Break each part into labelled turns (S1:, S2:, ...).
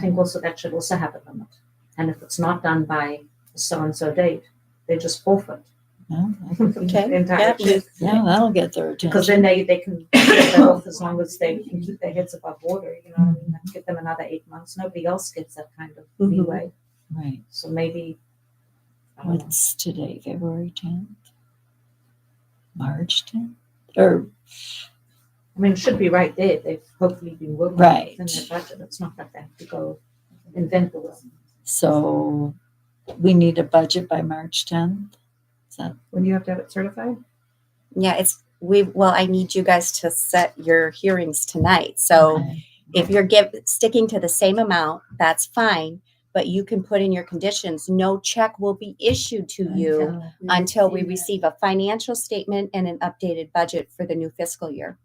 S1: think also that should also have a limit. And if it's not done by so and so date, they just forfeit
S2: No, I think-
S1: the
S3: Okay.
S1: entire
S3: Yeah,
S1: check.
S2: Yeah, that'll get their
S1: Because then
S2: attention.
S1: they, they can get off as long as they can keep their heads above water, you know, what I mean, Let's give them another eight months. Nobody else gets that kind of
S3: Mhm.
S1: leeway.
S2: Right.
S1: So maybe, I don't know.
S2: What's today, February tenth? March tenth? Or,
S1: I mean, it should be right there. They've hopefully been working
S2: Right.
S1: within their budget. It's not like they have to go invent the wheel.
S2: so we need a budget by March tenth? Is that,
S4: When do you have to have it certified?
S3: Yeah, it's we. Well, I need you guys to set your hearings tonight. So
S2: okay.
S3: if you're give sticking to the same amount, that's fine. But you can put in your conditions. No check will be issued to you until we receive a financial statement and an updated budget for the new fiscal year.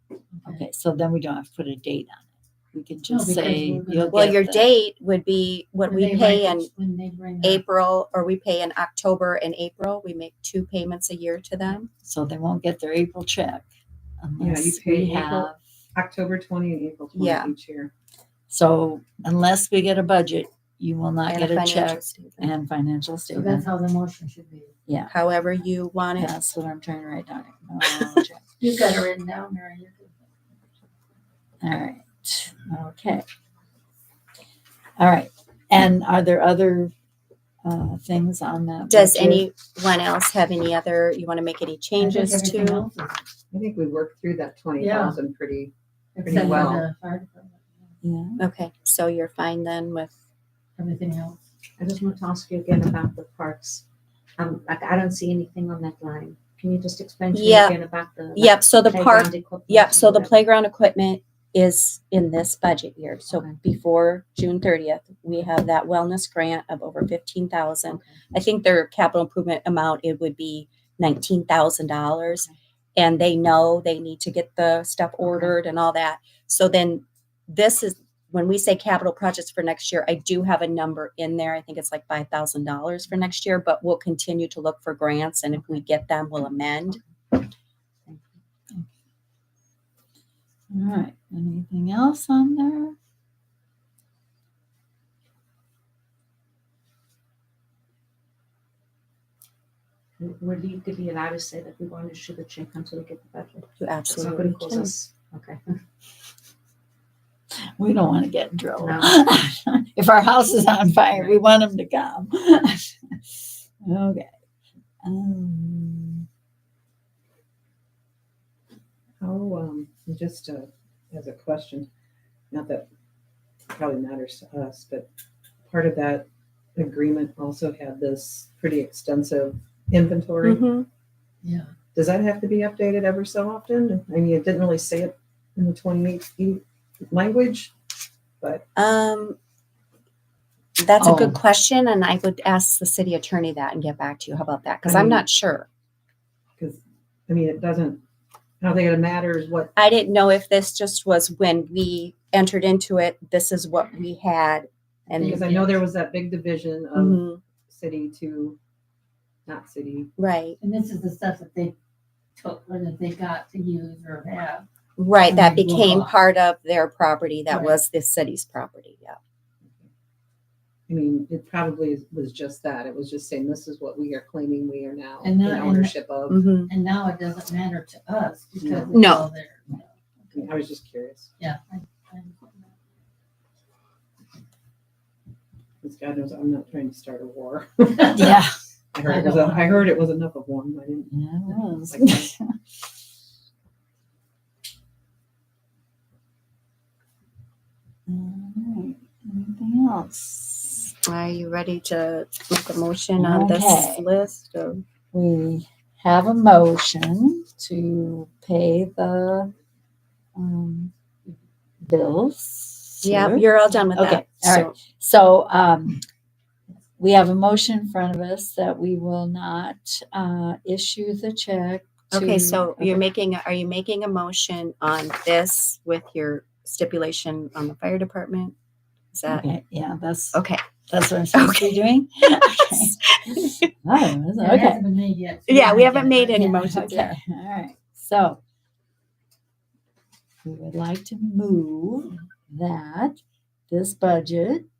S2: Okay, so then we don't have to put a date on it. We can just
S5: because
S2: say.
S5: we're gonna-
S2: you'll
S3: Well,
S2: get
S3: your
S2: the-
S3: date would be what
S5: When
S3: we
S5: they
S3: pay
S5: bring-
S3: in
S5: When they bring up-
S3: April, or we pay in October and April. We make two payments a year to them.
S2: So they won't get their April check
S4: you
S2: unless
S4: pay
S2: we
S4: April.
S2: have,
S4: October twenty and April twenty
S3: Yeah.
S4: each year.
S2: so unless we get a budget, you will not
S3: and
S2: get a
S3: financial
S2: check
S3: statement.
S2: and financial
S5: So that's
S2: statement.
S5: how the motion should be.
S3: However you want it.
S2: That's what I'm trying to write down. Acknowledge.
S5: You've got it written down, Mary. you're good.
S2: All right, okay. All right, and are there other uh, things on that?
S3: Does
S2: budget?
S3: anyone else have any other, you want to make any
S5: I think
S3: changes
S5: everything
S3: to?
S5: else is-
S4: I think we worked through that twenty thousand pretty.
S5: Except for
S4: well.
S5: the fire department.
S2: Yeah,
S3: Okay, so you're fine then with,
S5: Everything else.
S1: I just want to ask you again about the parks. Um, like I don't see anything on that line. Can you just explain to me
S3: Yeah.
S1: again about the? like,
S3: yep, so the park,
S1: playground equipment
S3: yep, so
S1: and
S3: the
S1: whatever?
S3: playground equipment is in this budget year. So
S1: Okay.
S3: before June thirtieth, we have that wellness grant of over fifteen thousand.
S1: Okay.
S3: I think their capital improvement amount, it would be nineteen thousand dollars.
S1: Okay.
S3: And they know they need to get the stuff ordered and all that. So then this is, when we say capital projects for next year, I do have a number in there. I think it's like five thousand dollars for next year, but we'll continue to look for grants and if we get them, we'll amend.
S2: all right, anything else on there?
S1: Were legally allowed to say that we won't issue the check until we get the budget?
S3: You
S1: It's not going to
S3: absolutely
S1: cause
S3: can.
S1: us, okay.
S2: We don't want to get in trouble.
S1: No.
S2: If our house is on fire, we want them to come. Okay. Um,
S4: How, um, just, uh, as a question, not that it probably matters to us, but part of that agreement also had this pretty extensive inventory.
S3: Mhm.
S5: Yeah.
S4: Does that have to be updated ever so often? I mean, it didn't really say it in the twenty-eight E language.
S3: Um, that's a good
S2: Oh.
S3: question and I would ask the city attorney that and get back to you. How about that? Because I'm
S4: Um,
S3: not sure.
S4: Because, I mean, it doesn't, I don't think it matters what,
S3: I didn't know if this just was when we entered into it, this is what we had. And,
S4: because I know there was that big division of
S3: Mhm,
S4: city to not city.
S3: right,
S5: And this is the stuff that they took or that they got to use or have.
S3: right, that
S5: Mhm. Well,
S3: became
S5: uh,
S3: part of their property, that
S5: right.
S3: was the city's property, yeah.
S4: I mean, it probably is- was just that. It was just saying, this is what we are claiming we are now
S5: And
S4: in
S5: that- Mm. and-
S4: ownership of.
S3: Mhm.
S5: And now it doesn't matter to us because it's
S3: No.
S5: all there.
S4: I mean, I was just curious.
S5: Yeah. I- I-
S4: Because God knows I'm not trying to start a war.
S2: Yeah.
S4: I heard it was, a- I heard it was enough of one. I didn't.
S2: Yeah, it was. Alright, Anything else?
S3: Are you ready to make a motion on this
S2: Okay.
S3: list of
S2: We have a motion to pay the um, bills.
S3: Yeah,
S2: here.
S3: you're all done with that.
S2: Okay, all right.
S3: So,
S2: So um, we have a motion in front of us that we will not uh, issue the check. to-
S3: Okay, so
S2: Okay.
S3: you're making, are you making a motion on this with your stipulation on the fire department? Is that,
S2: Okay, yeah, that's,
S3: okay,
S2: that's what I'm supposed to be doing. Okay. Oh,
S5: It
S2: okay.
S5: hasn't been made yet. so
S3: Yeah, we
S5: not
S3: haven't
S5: getting
S3: made
S5: it.
S3: any
S5: Yeah.
S3: motions.
S2: Okay, all right, so. We would like to move that this budget